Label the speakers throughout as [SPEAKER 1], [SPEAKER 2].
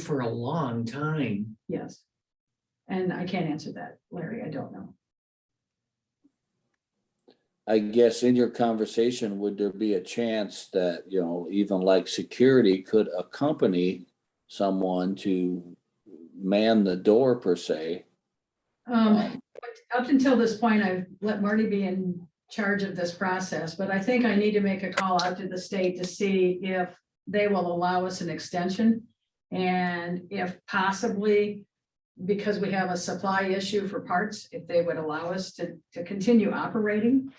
[SPEAKER 1] for a long time.
[SPEAKER 2] Yes. And I can't answer that, Larry. I don't know.
[SPEAKER 3] I guess in your conversation, would there be a chance that, you know, even like security could accompany someone to man the door per se?
[SPEAKER 2] Um, but up until this point, I've let Marty be in charge of this process, but I think I need to make a call out to the state to see if they will allow us an extension. And if possibly, because we have a supply issue for parts, if they would allow us to, to continue operating.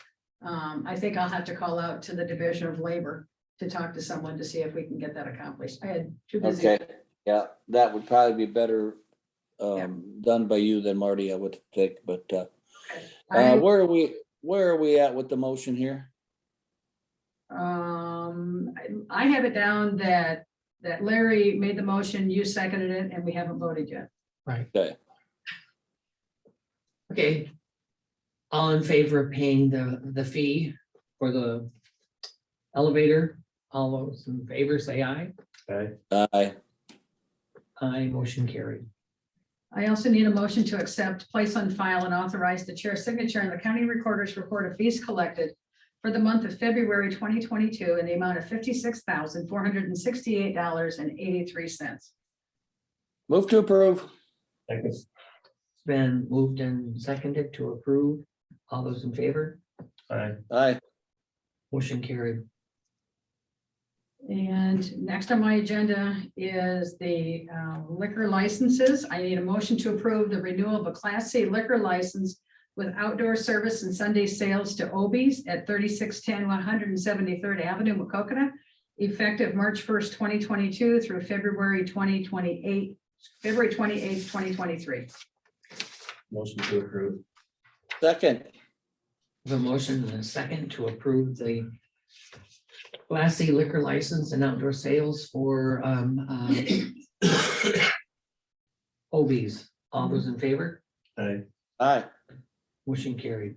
[SPEAKER 2] Um, I think I'll have to call out to the Division of Labor to talk to someone to see if we can get that accomplished. I had too busy.
[SPEAKER 3] Okay, yeah, that would probably be better um, done by you than Marty, I would think, but uh, uh,
[SPEAKER 2] I-
[SPEAKER 3] where are we, where are we at with the motion here?
[SPEAKER 2] Um, I I have it down that, that Larry made the motion, you seconded it, and we haven't voted yet.
[SPEAKER 3] Okay,
[SPEAKER 1] Okay. All in favor of paying the, the fee for the elevator? All those in favor, say aye.
[SPEAKER 3] aye,
[SPEAKER 1] Aye, motion carried.
[SPEAKER 2] I also need a motion to accept, place on file, and authorize the chair's signature and the county recorder's report of fees collected for the month of February twenty twenty-two in the amount of fifty-six thousand, four hundred and sixty-eight dollars and eighty-three cents.
[SPEAKER 3] move to approve,
[SPEAKER 1] It's been moved and seconded to approve. All those in favor?
[SPEAKER 4] Aye.
[SPEAKER 3] aye,
[SPEAKER 1] Motion carried.
[SPEAKER 2] And next on my agenda is the uh, liquor licenses. I need a motion to approve the renewal of a Class C liquor license with outdoor service and Sunday sales to Obies at 3610 173rd Avenue, Wacokota, effective March first, twenty twenty-two through February twenty twenty-eight, February twenty-eighth, twenty twenty-three.
[SPEAKER 4] Motion to approve.
[SPEAKER 3] second,
[SPEAKER 1] The motion and a second to approve the Class C liquor license and outdoor sales for, um, uh, Obies. All those in favor?
[SPEAKER 4] Aye.
[SPEAKER 3] aye,
[SPEAKER 1] Motion carried.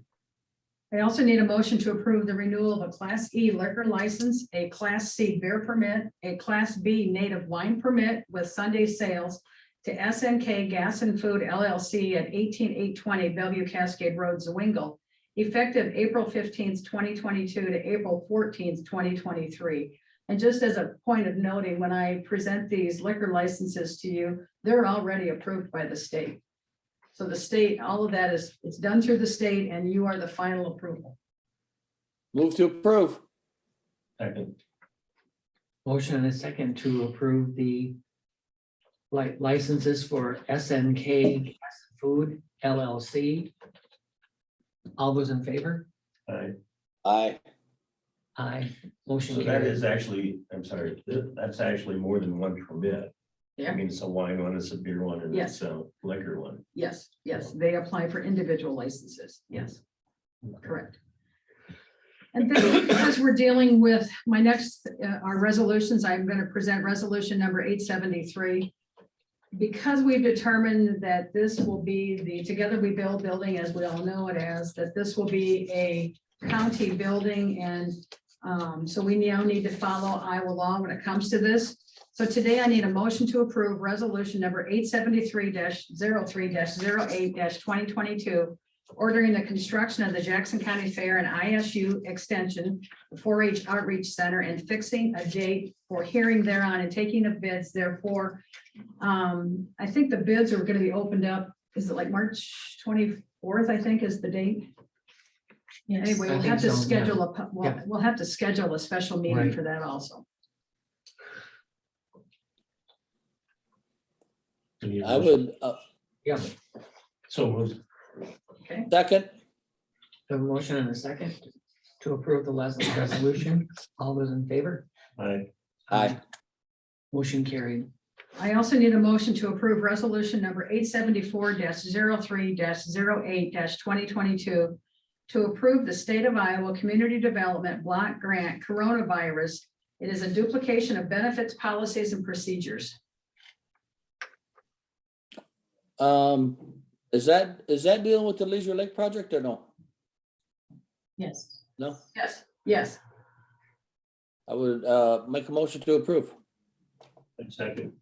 [SPEAKER 2] I also need a motion to approve the renewal of a Class E liquor license, a Class C beer permit, a Class B native wine permit with Sunday sales to SNK Gas and Food LLC at eighteen eight twenty Bellevue Cascade Road, Zwingle, effective April fifteenth, twenty twenty-two to April fourteenth, twenty twenty-three. And just as a point of noting, when I present these liquor licenses to you, they're already approved by the state. So the state, all of that is, it's done through the state and you are the final approval.
[SPEAKER 3] move to approve,
[SPEAKER 4] Second.
[SPEAKER 1] Motion and a second to approve the li- licenses for SNK Gas and Food LLC. All those in favor?
[SPEAKER 4] Aye.
[SPEAKER 3] aye,
[SPEAKER 1] Aye.
[SPEAKER 4] So
[SPEAKER 1] Motion
[SPEAKER 4] that is
[SPEAKER 1] carries.
[SPEAKER 4] actually, I'm sorry, th- that's actually more than one permit.
[SPEAKER 2] Yeah.
[SPEAKER 4] I mean, it's a wine one, it's a beer one, and
[SPEAKER 2] Yes.
[SPEAKER 4] it's a liquor one.
[SPEAKER 2] Yes, yes, they apply for individual licenses. Yes, correct. And then as we're dealing with my next, uh, our resolutions, I'm going to present resolution number eight seventy-three. Because we've determined that this will be the Together We Build building, as we all know it as, that this will be a county building and um, so we now need to follow Iowa law when it comes to this. So today I need a motion to approve resolution number eight seventy-three 3 8 twenty twenty-two. Ordering the construction of the Jackson County Fair and ISU Extension, the four H Outreach Center and fixing a date for hearing thereon and taking of bids therefore. Um, I think the bids are gonna be opened up, is it like March twenty-fourth, I think is the date? Anyway,
[SPEAKER 1] I
[SPEAKER 2] we'll
[SPEAKER 1] think
[SPEAKER 2] have to
[SPEAKER 1] so, yeah.
[SPEAKER 2] schedule a, pu- we'll,
[SPEAKER 1] Yeah.
[SPEAKER 2] we'll have to schedule a special meeting
[SPEAKER 1] Right.
[SPEAKER 2] for that also.
[SPEAKER 4] Any
[SPEAKER 3] I
[SPEAKER 4] others?
[SPEAKER 3] would, uh,
[SPEAKER 1] Yeah,
[SPEAKER 4] So moved.
[SPEAKER 2] Okay,
[SPEAKER 3] second,
[SPEAKER 1] the motion and a second to approve the last resolution. All those in favor?
[SPEAKER 4] Aye.
[SPEAKER 3] aye,
[SPEAKER 1] Motion carried.
[SPEAKER 2] I also need a motion to approve resolution number eight seventy-four 3 8 twenty twenty-two to approve the State of Iowa Community Development Block Grant Coronavirus. It is a duplication of benefits, policies, and procedures.
[SPEAKER 3] Um, is that, is that dealing with the Leisure Lake project or no?
[SPEAKER 2] Yes.
[SPEAKER 3] No,
[SPEAKER 2] Yes, yes.
[SPEAKER 3] I would, uh, make a motion to approve.
[SPEAKER 4] And Second.